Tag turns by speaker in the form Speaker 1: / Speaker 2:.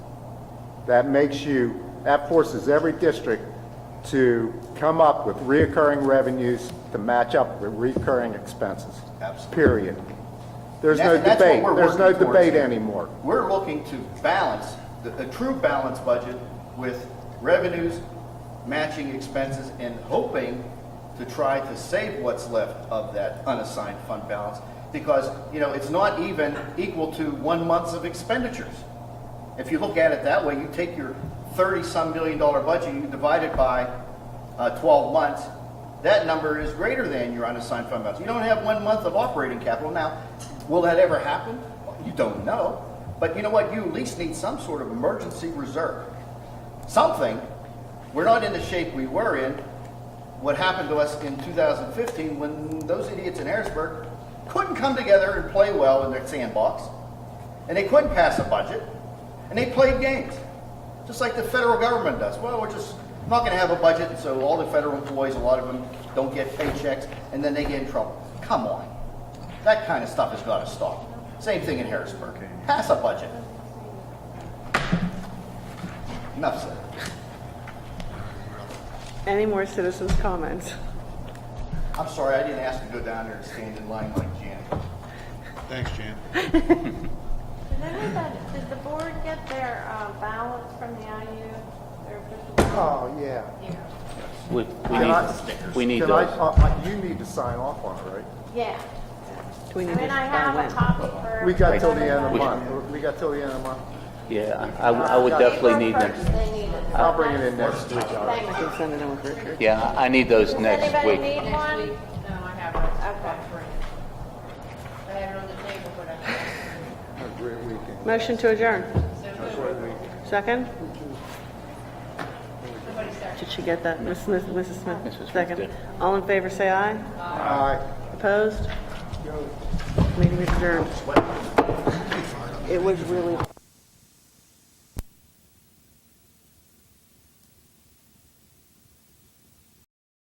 Speaker 1: That makes you, that forces every district to come up with reoccurring revenues to match up with recurring expenses.
Speaker 2: Absolutely.
Speaker 1: Period. There's
Speaker 2: And
Speaker 1: no
Speaker 2: that's- that's what
Speaker 1: debate,
Speaker 2: we're
Speaker 1: there's no
Speaker 2: working towards
Speaker 1: debate
Speaker 2: here.
Speaker 1: anymore.
Speaker 2: We're looking to balance, the- a true balanced budget with revenues, matching expenses, and hoping to try to save what's left of that unassigned fund balance, because, you know, it's not even equal to one month's of expenditures. If you look at it that way, you take your thirty-some million dollar budget, you divide it by uh, twelve months, that number is greater than your unassigned fund balance. You don't have one month of operating capital. Now, will that ever happen? You don't know. But you know what? You at least need some sort of emergency reserve. Something. We're not in the shape we were in. What happened to us in 2015 when those idiots in Harrisburg couldn't come together and play well in their sandbox and they couldn't pass a budget, and they played games, just like the federal government does. Well, we're just not going to have a budget, and so all the federal employees, a lot of them don't get paychecks, and then they get in trouble. Come on, that kind of stuff has got to stop. Same thing in Harrisburg. Pass a budget. Enough said.
Speaker 3: Any more citizens' comments?
Speaker 2: I'm sorry, I didn't ask to go down there and stand in line like Janet.
Speaker 4: Thanks, Jan.
Speaker 5: Did anybody, did the board get their uh, ballots from the IU, their official? ballot?
Speaker 1: Oh, yeah.
Speaker 5: Yeah.
Speaker 6: We, we
Speaker 1: Can I-
Speaker 6: need, we need
Speaker 1: Can I-
Speaker 6: those.
Speaker 1: uh, You need to sign off on it, right?
Speaker 5: Yeah.
Speaker 3: Do we
Speaker 5: I
Speaker 3: need to
Speaker 5: mean, I
Speaker 3: uh,
Speaker 5: have a
Speaker 3: when?
Speaker 5: copy for.
Speaker 1: We got till the end of the
Speaker 6: We-
Speaker 1: month, we got till the end of the month.
Speaker 6: Yeah, I, I would definitely need
Speaker 5: April
Speaker 6: them.
Speaker 5: 1st they need it.
Speaker 1: I'll bring it in next week.
Speaker 5: Thank
Speaker 3: I
Speaker 5: you.
Speaker 3: can send it in with Richard.
Speaker 6: Yeah, I need those
Speaker 5: Does
Speaker 6: next
Speaker 5: anybody
Speaker 6: week.
Speaker 5: need one?
Speaker 7: Next week, no, I have it.
Speaker 5: Okay.
Speaker 7: I have it on the table, but I,
Speaker 1: Have a great weekend.
Speaker 3: Motion to adjourn.
Speaker 7: so
Speaker 3: Second?
Speaker 7: somebody start.
Speaker 3: Did she get that? Miss Smith- Mrs.
Speaker 6: Mrs. Smith
Speaker 3: Smith, second.
Speaker 6: did.
Speaker 3: All in favor, say aye.
Speaker 1: All right.
Speaker 3: Opposed? Meeting adjourned. It was really...